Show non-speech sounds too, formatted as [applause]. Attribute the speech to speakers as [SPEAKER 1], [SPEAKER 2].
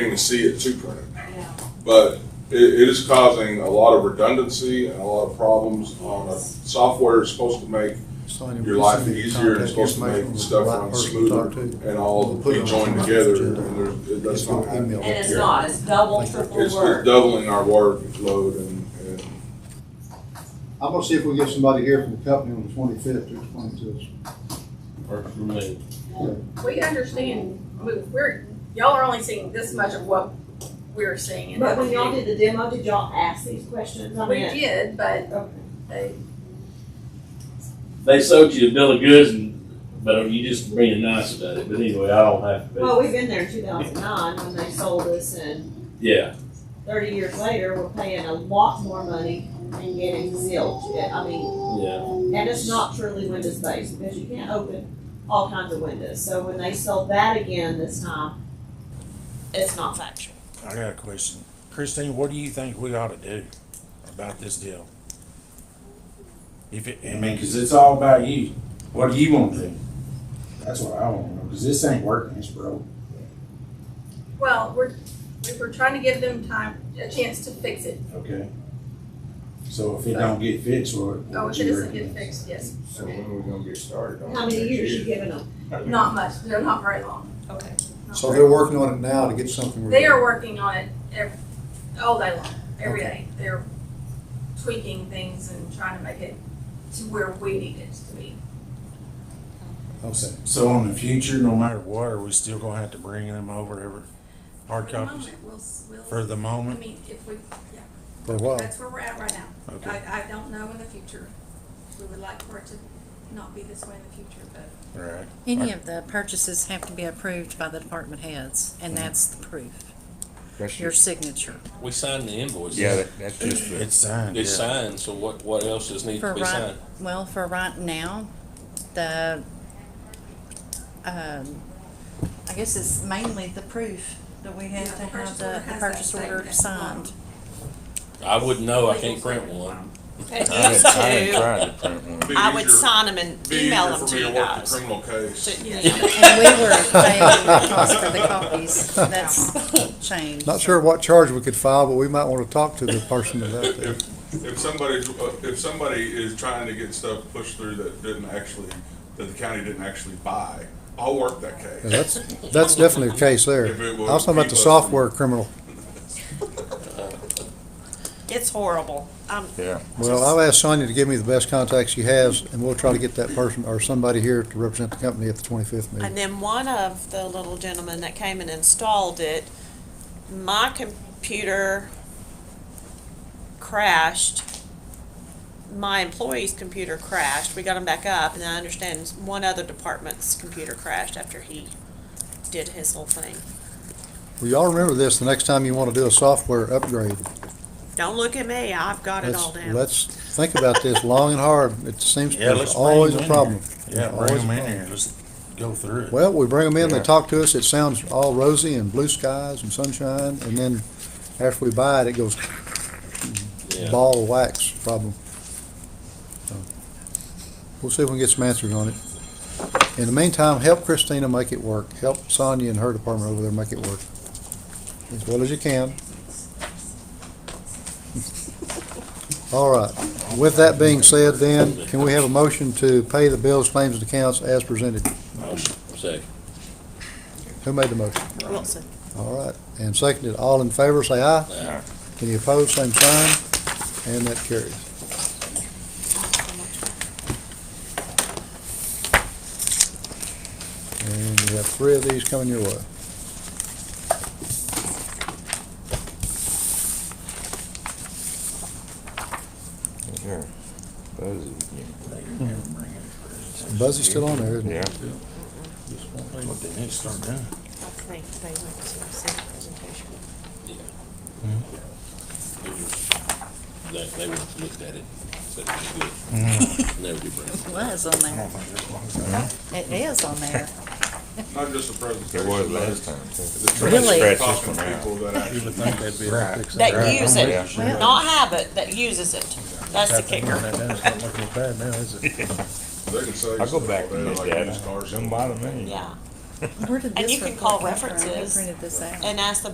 [SPEAKER 1] even see it two print.
[SPEAKER 2] Yeah.
[SPEAKER 1] But it, it is causing a lot of redundancy and a lot of problems on a software is supposed to make your life easier and supposed to make stuff run smoother and all
[SPEAKER 3] We'll put it
[SPEAKER 1] be
[SPEAKER 3] on
[SPEAKER 1] joined
[SPEAKER 3] tonight's
[SPEAKER 1] together.
[SPEAKER 3] agenda.
[SPEAKER 1] And there's, that's
[SPEAKER 3] That's
[SPEAKER 1] not happening.
[SPEAKER 3] email.
[SPEAKER 2] And it's
[SPEAKER 3] Yeah.
[SPEAKER 2] not, it's double,
[SPEAKER 3] Thank you.
[SPEAKER 2] triple
[SPEAKER 1] It's it's
[SPEAKER 2] work.
[SPEAKER 1] doubling our workload and, and
[SPEAKER 4] I'm gonna see if we get somebody here from the company on the twenty-fifth to explain to us.
[SPEAKER 5] Or for me.
[SPEAKER 6] We understand, I mean, we're, y'all are only seeing this much of what we're seeing. in
[SPEAKER 2] But when
[SPEAKER 6] that
[SPEAKER 2] y'all did the demo, did y'all ask these questions? I
[SPEAKER 6] We
[SPEAKER 2] mean,
[SPEAKER 6] did, but
[SPEAKER 2] okay.
[SPEAKER 6] they,
[SPEAKER 5] They sold you a bill of goods, and, but you just being nice about it. But anyway, I don't have to.
[SPEAKER 2] Well,
[SPEAKER 5] Pay.
[SPEAKER 2] we've been there in two thousand nine when they sold us and
[SPEAKER 5] Yeah,
[SPEAKER 2] thirty years later, we're paying a lot more money and getting zilch. Yeah, I mean,
[SPEAKER 5] yeah.
[SPEAKER 2] and it's not truly windows based because you can't open all kinds of windows. So when they sold that again this time, it's not factual.
[SPEAKER 7] I got a question. Christine, what do you think we ought to do about this deal? If it,
[SPEAKER 8] I mean, cause it's all about you. What do you want to do? That's what I want to know, cause this ain't working, it's broke.
[SPEAKER 6] well, we're, we we're trying to give them time, a chance to fix it.
[SPEAKER 8] Okay. So if it don't get fixed, what?
[SPEAKER 6] Oh,
[SPEAKER 8] what
[SPEAKER 6] if it
[SPEAKER 8] you
[SPEAKER 6] doesn't get
[SPEAKER 8] recommend?
[SPEAKER 6] fixed, yes,
[SPEAKER 1] So when are we gonna get started on?
[SPEAKER 2] How many years you giving them?
[SPEAKER 6] not much, they're not very long.
[SPEAKER 2] Okay.
[SPEAKER 6] Not
[SPEAKER 3] So
[SPEAKER 6] very
[SPEAKER 3] they're working on it now to get something.
[SPEAKER 6] They
[SPEAKER 3] ready.
[SPEAKER 6] are working on it every, all day long, every day. They're tweaking things and trying to make it to where we need it to be.
[SPEAKER 3] Okay.
[SPEAKER 8] So in the future,
[SPEAKER 7] no
[SPEAKER 8] no matter,
[SPEAKER 7] matter what, are we still gonna have to bring them over every hard
[SPEAKER 6] For the
[SPEAKER 7] copies
[SPEAKER 6] moment, we'll s- we'll-
[SPEAKER 7] for the
[SPEAKER 6] I
[SPEAKER 7] moment? Oh.
[SPEAKER 6] mean, if we, yeah,
[SPEAKER 3] For what?
[SPEAKER 6] that's where we're at right now.
[SPEAKER 7] Okay,
[SPEAKER 6] I, I don't know in the future. We would like for it to not be this way in the future, but
[SPEAKER 7] all right.
[SPEAKER 9] Any of the purchases have to be approved by the department heads, and
[SPEAKER 3] Mm-hmm.
[SPEAKER 9] that's the proof, your signature.
[SPEAKER 10] We signed the invoices.
[SPEAKER 11] Yeah, that- that's just the,
[SPEAKER 7] It's signed,
[SPEAKER 10] It's
[SPEAKER 7] yeah.
[SPEAKER 10] signed, so what, what else does need
[SPEAKER 9] For
[SPEAKER 10] to be
[SPEAKER 9] right,
[SPEAKER 10] signed?
[SPEAKER 9] well, for right now, the, um, I guess it's mainly the proof that we
[SPEAKER 6] Yeah,
[SPEAKER 9] have
[SPEAKER 6] the
[SPEAKER 9] to
[SPEAKER 6] purchase
[SPEAKER 9] have
[SPEAKER 6] order
[SPEAKER 9] the, the
[SPEAKER 6] has that
[SPEAKER 9] purchase
[SPEAKER 6] thing
[SPEAKER 9] order
[SPEAKER 6] at the bottom.
[SPEAKER 9] signed.
[SPEAKER 10] I wouldn't know, I can't print one.
[SPEAKER 11] [laughs] I didn't, I
[SPEAKER 12] [laughs]
[SPEAKER 11] didn't try to print one.
[SPEAKER 1] Be
[SPEAKER 12] I would
[SPEAKER 1] easier-
[SPEAKER 12] sign them and
[SPEAKER 1] be
[SPEAKER 12] email
[SPEAKER 1] easier
[SPEAKER 12] them
[SPEAKER 1] for
[SPEAKER 12] to
[SPEAKER 1] me
[SPEAKER 12] you
[SPEAKER 1] work the
[SPEAKER 12] guys.
[SPEAKER 1] Criminal case.
[SPEAKER 12] To- yeah.
[SPEAKER 9] And we
[SPEAKER 3] [laughs]
[SPEAKER 9] were paying the cost for the copies, that's changed.
[SPEAKER 3] Not sure what charge we could file, but we might want to talk to the person about that.
[SPEAKER 1] If, if somebody's, if somebody is trying to get stuff pushed through that didn't actually, that the county didn't actually buy, I'll work that
[SPEAKER 3] Yeah,
[SPEAKER 1] case.
[SPEAKER 3] That's, that's definitely the case there.
[SPEAKER 1] If it
[SPEAKER 3] I
[SPEAKER 1] will
[SPEAKER 3] was talking
[SPEAKER 1] keep
[SPEAKER 3] about the
[SPEAKER 1] us from-
[SPEAKER 3] software criminal.
[SPEAKER 12] It's horrible. Um,
[SPEAKER 11] Yeah.
[SPEAKER 3] Well, I'll ask Sonia to give me the best contacts she has, and we'll try to get that person or somebody here to represent the company at the twenty-fifth meeting.
[SPEAKER 12] and then one of the little gentlemen that came and installed it, my computer crashed. My employee's computer crashed. We got him back up, and I understand one other department's computer crashed after he did his whole thing.
[SPEAKER 3] Well, y'all remember this, the next time you want to do a software upgrade,
[SPEAKER 12] Don't look at me. I've got it all
[SPEAKER 3] let's,
[SPEAKER 12] down.
[SPEAKER 3] let's think about this long and hard. It seems
[SPEAKER 7] Yeah,
[SPEAKER 3] there's
[SPEAKER 7] let's bring
[SPEAKER 3] always
[SPEAKER 7] them
[SPEAKER 3] a
[SPEAKER 7] in here.
[SPEAKER 3] problem.
[SPEAKER 7] Yeah,
[SPEAKER 3] Always
[SPEAKER 7] bring them
[SPEAKER 3] a
[SPEAKER 7] in
[SPEAKER 3] problem.
[SPEAKER 7] here, just go through it.
[SPEAKER 3] Well, we bring them in, they
[SPEAKER 11] Yeah.
[SPEAKER 3] talk to us, it sounds all rosy and blue skies and sunshine, and then after we buy it, it goes
[SPEAKER 10] Yeah.
[SPEAKER 3] ball of wax problem. So, We'll see if we can get some answers on it. In the meantime, help Christina make it work. Help Sonia and her department over there make it work. As well as you can. [laughs] All right. With that being said then, can we have a motion to pay the bills, claims, and accounts as presented?
[SPEAKER 10] Motion, second.
[SPEAKER 3] Who made the motion?
[SPEAKER 12] Wilson.
[SPEAKER 3] All right. And seconded, all in favor, say aye.
[SPEAKER 10] Aye.
[SPEAKER 3] Any opposed, same sign. And that carries. And you have three of these coming your way.
[SPEAKER 11] Yeah. Buzz is-
[SPEAKER 3] Buzz is still on there, isn't he?
[SPEAKER 11] Yeah.
[SPEAKER 7] What they need to start doing.
[SPEAKER 12] I think they went to see the presentation. Mm-hmm.
[SPEAKER 10] It was- They, they would have looked at it, said it was good. Never do bring it.
[SPEAKER 9] [laughs] It was on there, it is on there.
[SPEAKER 1] Not just a presentation.
[SPEAKER 11] It was
[SPEAKER 1] but
[SPEAKER 11] last time. too.
[SPEAKER 1] the
[SPEAKER 9] Really?
[SPEAKER 11] Scratch this
[SPEAKER 1] Talking
[SPEAKER 11] one
[SPEAKER 1] to people
[SPEAKER 11] out.
[SPEAKER 1] that actually
[SPEAKER 7] You would think they'd be able to fix that.
[SPEAKER 12] That use
[SPEAKER 11] Yeah.
[SPEAKER 12] it, not have it, that uses it. That's the kicker.
[SPEAKER 7] It's not looking bad now, is it?
[SPEAKER 1] They can say.
[SPEAKER 11] I go back to my
[SPEAKER 1] like
[SPEAKER 11] dad,
[SPEAKER 1] used cars.
[SPEAKER 11] don't bother
[SPEAKER 12] [laughs]
[SPEAKER 11] me.
[SPEAKER 12] Yeah.
[SPEAKER 9] Where did
[SPEAKER 12] And
[SPEAKER 9] this
[SPEAKER 12] you can
[SPEAKER 9] report
[SPEAKER 12] call
[SPEAKER 9] come from? Who
[SPEAKER 12] references
[SPEAKER 9] printed this out?
[SPEAKER 12] And ask the